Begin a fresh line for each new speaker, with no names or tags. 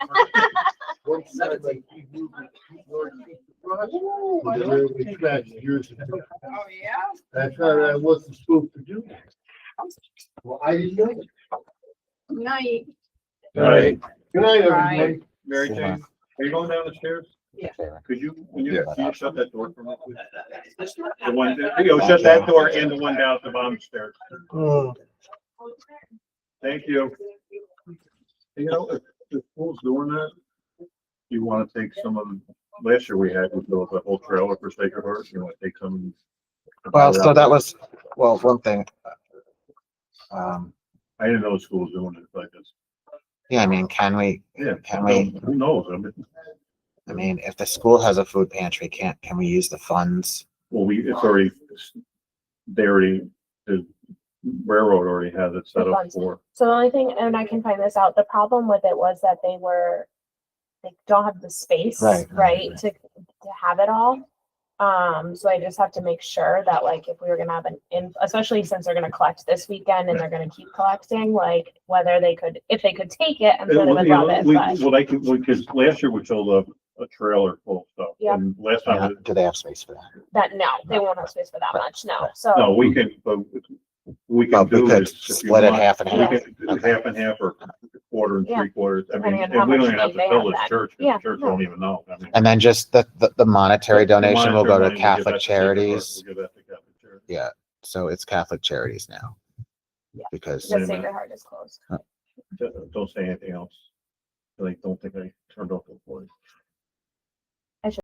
One side, like, you move it, you work it, you brush it, and then we scratch yours.
Oh, yeah?
That's how I wasn't supposed to do that. Well, I didn't know. Good
Night.
Right.
night,
Right.
everybody.
Mary Jane, are you going down the stairs?
Yeah.
Could you, when you,
Yeah.
can you shut that door for me? please? The one, that- you know, shut that door and the one down at the bottom stairs.
Oh,
Thank you. You know, if the school's doing that, you wanna take some of, them- last year we had, we built a whole trailer for Sacred Heart, you wanna take some.
Well, so that was, well, one thing. Um,
I didn't know the school was doing it like this.
yeah, I mean, can we,
Yeah.
Can we-
Who knows? I mean,
I mean, if the school has a food pantry, can't, can we use the funds?
well, we, it's already, they already, the railroad already has it set up for.
So the only thing, and I can find this out, the problem with it was that they were, they don't have the space,
Right, right,
right,
right.
to, to have it all. Um, so I just have to make sure that like if we were gonna have an, in- especially since they're gonna collect this weekend and they're gonna keep collecting, like whether they could, if they could take it, I'm
Yeah,
sure they
Well,
would
you
love
know,
it,
we,
but.
well, they could, because last year we sold a, a trailer full of stuff.
Yeah.
And last
Yeah,
time,
Do they have space for that?
That, no, they won't have space for that much, no,
no,
so,
we can, but we
Oh. Well,
can
we
do
could
this. if you
split it
want.
half and
We
half.
can do Half and half or quarter and
Yeah.
three quarters. I mean,
Depending on
and
how
we
much
don't even have to
money they
tell
have
the
then.
church. 'cause
Yeah,
The church
no.
won't even know. I mean,
And then just the, the, the monetary
the
donation will go
monetary money,
to
we give that
Catholic
Sacred Heart,
charities.
we give that to Catholic Charities.
Yeah, so it's Catholic charities now. Because,
wait a
the Sacred
minute.
Heart is closed.
Don't- Don't say anything else. Like, don't think I turned off the voice.